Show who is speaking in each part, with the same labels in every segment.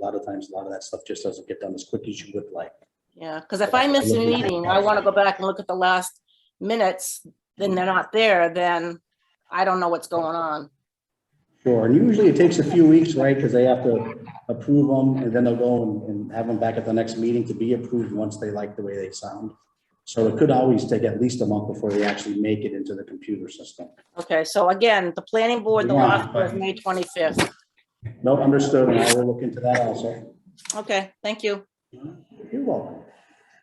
Speaker 1: lot of times, a lot of that stuff just doesn't get done as quick as you would like.
Speaker 2: Yeah, because if I miss a meeting, I want to go back and look at the last minutes, then they're not there, then I don't know what's going on.
Speaker 1: Sure, and usually it takes a few weeks, right, because they have to approve them, and then they'll go and- and have them back at the next meeting to be approved once they like the way they sound. So it could always take at least a month before they actually make it into the computer system.
Speaker 2: Okay, so again, the planning board, the
Speaker 1: Yeah.
Speaker 2: last was May 25th.
Speaker 1: No, understood, and I will look into that also.
Speaker 2: Okay, thank you.
Speaker 1: You're welcome.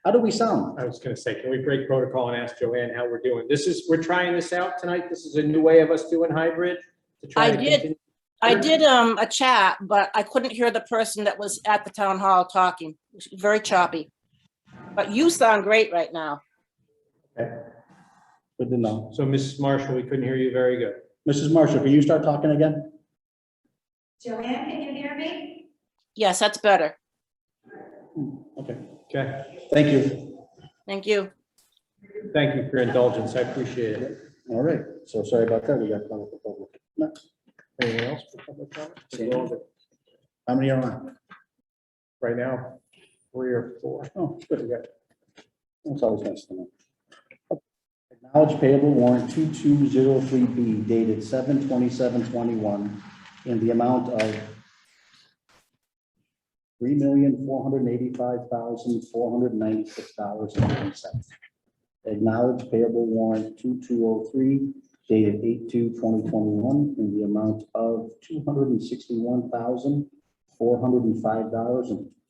Speaker 1: How do we sound?
Speaker 3: I was gonna say, can we break protocol and ask Joanne how we're doing? This is, we're trying this out tonight. This is a new way of us doing hybrid. to try
Speaker 2: I
Speaker 3: to
Speaker 2: did.
Speaker 3: continue-
Speaker 2: I did um a chat, but I couldn't hear the person that was at the town hall talking. It was Very choppy. But you sound great right now.
Speaker 1: Good to know.
Speaker 3: So Mrs. Marshall, we couldn't hear you very good.
Speaker 1: Mrs. Marshall, can you start talking again?
Speaker 4: Joanne, can you hear me?
Speaker 2: Yes, that's better.
Speaker 1: Okay,
Speaker 3: Okay,
Speaker 1: thank you.
Speaker 2: Thank you.
Speaker 3: thank you for your indulgence. I appreciate it.
Speaker 1: All right, so sorry about that, we got caught up with public. No,
Speaker 3: Anyone else for public comment?
Speaker 1: Same. How many are on?
Speaker 3: Right now, three or four.
Speaker 1: Oh, good, we got- that's always nice to know. Acknowledge payable warrant 2203B dated 7/27/21 in the amount of $3,485,496.09. Acknowledge payable warrant 2203 dated 8/2/2021 in the amount of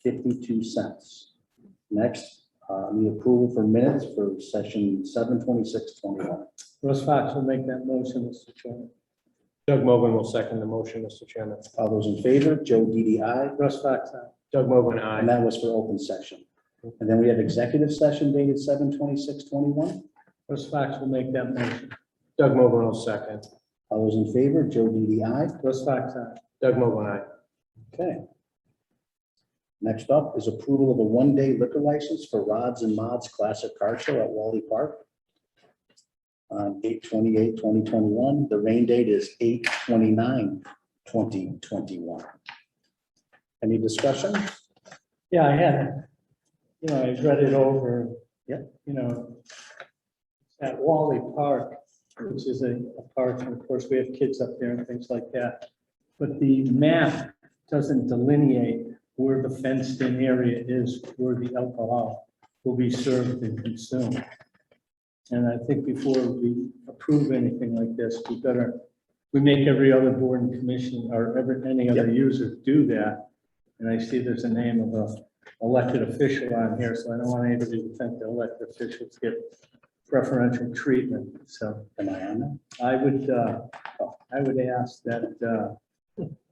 Speaker 1: $261,405.52. Next, uh, need approval for minutes for session seven twenty-six twenty-one.
Speaker 3: Russ Fox will make that motion, Mr. Chairman. Doug Mogul will second the motion, Mr. Chairman.
Speaker 1: All those in favor, Joe DDI,
Speaker 3: Russ Fox, Doug Mogul,
Speaker 1: and
Speaker 3: aye.
Speaker 1: that was for open session. And then we have executive session dated seven twenty-six twenty-one.
Speaker 3: Russ Fox will make that motion. Doug Mogul will second.
Speaker 1: All those in favor, Joe DDI.
Speaker 3: Russ Fox, Doug Mogul, aye.
Speaker 1: Okay. Next up is approval of a one-day liquor license for Rods and Mods Classic Car Show at Wally Park. On 2021. the rain date is 2021. Any discussion?
Speaker 5: Yeah, I had, you know, I read it over.
Speaker 1: Yeah.
Speaker 5: You know, at Wally Park, which is a a park, and of course, we have kids up there and things like that. But the map doesn't delineate where the fenced-in area is, where the alcohol will be served and consumed. And I think before we approve anything like this, we better, we make every other board and commission or every, any other user do that. And I see there's a name of a elected official on here, so I don't want anybody to think the elected officials get preferential treatment. So
Speaker 1: Am I on that?
Speaker 5: I would, uh, I would ask that, uh,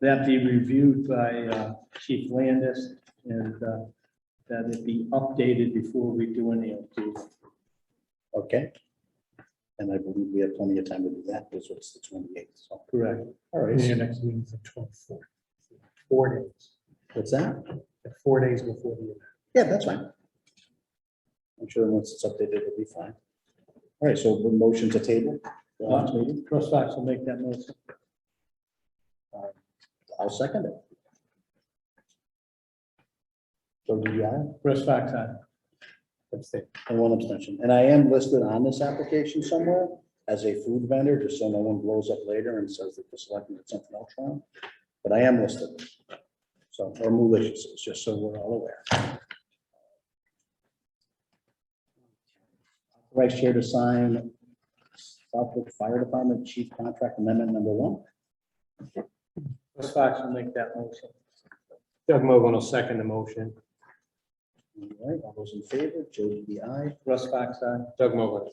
Speaker 5: that be reviewed by uh, Chief Landis and uh, that it be updated before we do any of these.
Speaker 1: Okay. And I believe we have plenty of time to do that, because it's the twenty-eighth, so.
Speaker 5: Correct.
Speaker 1: All
Speaker 6: Your next meeting's the twenty-fourth. Four days,
Speaker 1: What's that?
Speaker 6: like four days before the event.
Speaker 1: Yeah, that's fine. I'm sure once it's updated, it'll be fine. All right, so the motion to table. the last meeting.
Speaker 5: Russ Fox will make that motion.
Speaker 1: I'll second it. So do you have,
Speaker 5: Russ Fox, aye.
Speaker 3: Abstain.
Speaker 1: and one abstention, and I am listed on this application somewhere as a food vendor, just so no one blows up later and says that the selectmen did something else wrong. But I am listed. So, or malicious, it's just so we're all aware. Vice Chair to sign Southwick Fire Department Chief Contract Amendment Number One.
Speaker 5: Russ Fox will make that motion.
Speaker 3: Doug Mogul will second the motion.
Speaker 1: All right, all those in favor, Joe DDI.
Speaker 5: Russ Fox, aye.
Speaker 3: Doug Mogul.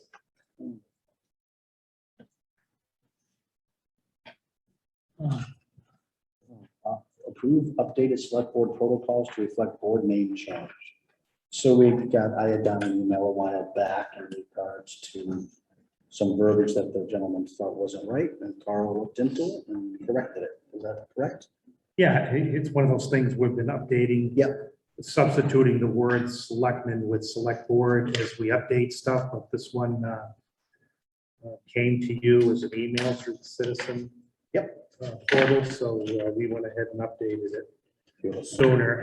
Speaker 1: approve updated select board protocols to reflect board name change. So we got, I had done an email a while back in regards to some verbiage that the gentleman thought wasn't right, and Carl looked into it and corrected it. Is that correct?
Speaker 6: Yeah, i- it's one of those things we've been updating.
Speaker 1: Yep.
Speaker 6: Substituting the word selectmen with select board as we update stuff, but this one uh, uh, came to you as an email through the citizen. uh, Portal, so uh, we went ahead and updated it sooner